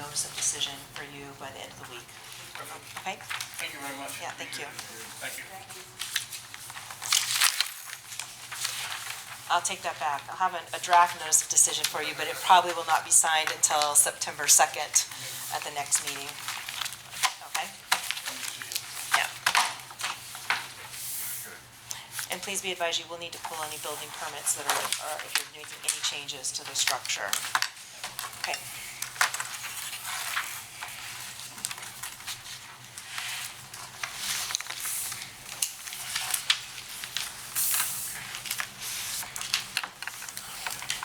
notice of decision for you by the end of the week, Perfect. okay? Thank you very much. Yeah, thank you. Thank you. I'll take that back. I'll have an- a draft notice of decision for you, but it probably will not be signed until September 2nd at the next meeting. Okay? Yeah. And please be advised, you will need to pull any building permits that are, or if you're making any changes to the structure. Okay.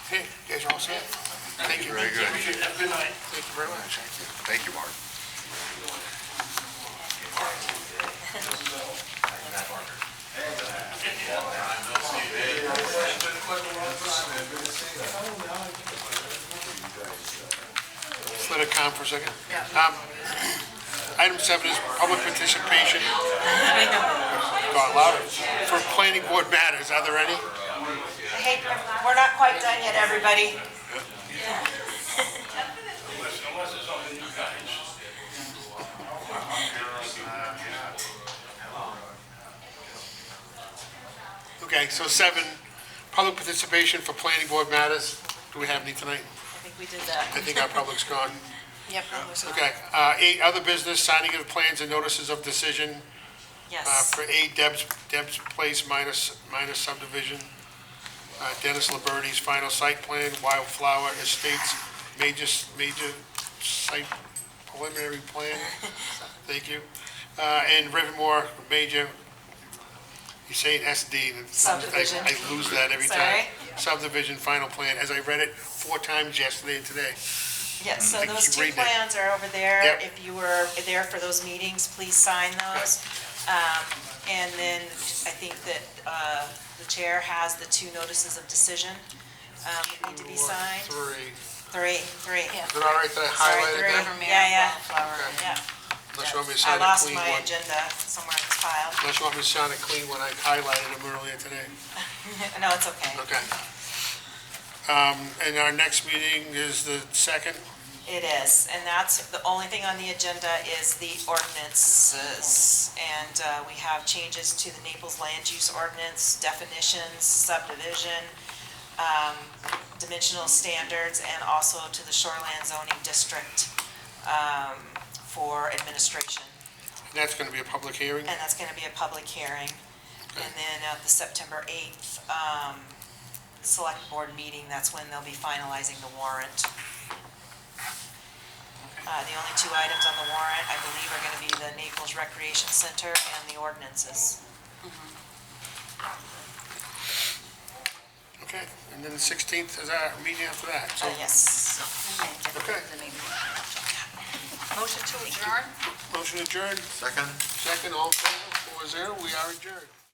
Okay, you guys are all set? Thank you. Very good. Appreciate it. Have a good night. Thank you very much. Thank you, Mark. Just Let it calm for a second. Um, Item seven is public participation. Got louder. For planning board matters, are there any? Hey, we're not quite done yet, everybody. Unless, unless it's on the new guys. Okay, so seven, public participation for planning board matters. Do we have any tonight? I think we did I that. think our public's gone. Yep. Okay, uh, eight, other business, signing of plans and notices of decision uh, Yes. for eight Deb's, Deb's Place minus, minus subdivision. Uh, Dennis Liberty's final site plan, Wildflower Estates, major, major site preliminary plan. Thank you. Uh, and Rivermore, major, you say it SD. and sometimes I- I lose that every time. Sorry. Subdivision final plan, as I read it four times yesterday and today. Yes, so I those keep two reading it. plans are over there. Yep. If you were there for those meetings, please sign those. Um, And then I think that uh, the chair has the two notices of decision um, that need to be signed. Three. Three, three. Is it all right that I highlighted three. that? Yeah, yeah. Yeah. Unless you want me to I sign a lost clean one. my agenda somewhere in this pile. Unless you want me to sign a clean one, I highlighted them earlier today. No, it's okay. Okay. Um, and our next meeting is the second, It is, and that's, the only thing on the agenda is the ordinances. And uh, we have changes to the Naples Land Use Ordinance, definitions, subdivision, um, dimensional standards, and also to the Shoreland zoning district um, for administration. and that's gonna be a public hearing. And that's going to be a public hearing. And then at the September 8th um, Select Board meeting, that's when they'll be finalizing the warrant. Uh, The only two items on the warrant, I believe, are going to be the Naples Recreation Center and the ordinances. Okay, and then the sixteenth is our meeting after that, so. Uh, Yes. Okay. Motion to adjourn? Motion adjourned, Second? second, all in favor, four zero, we are adjourned.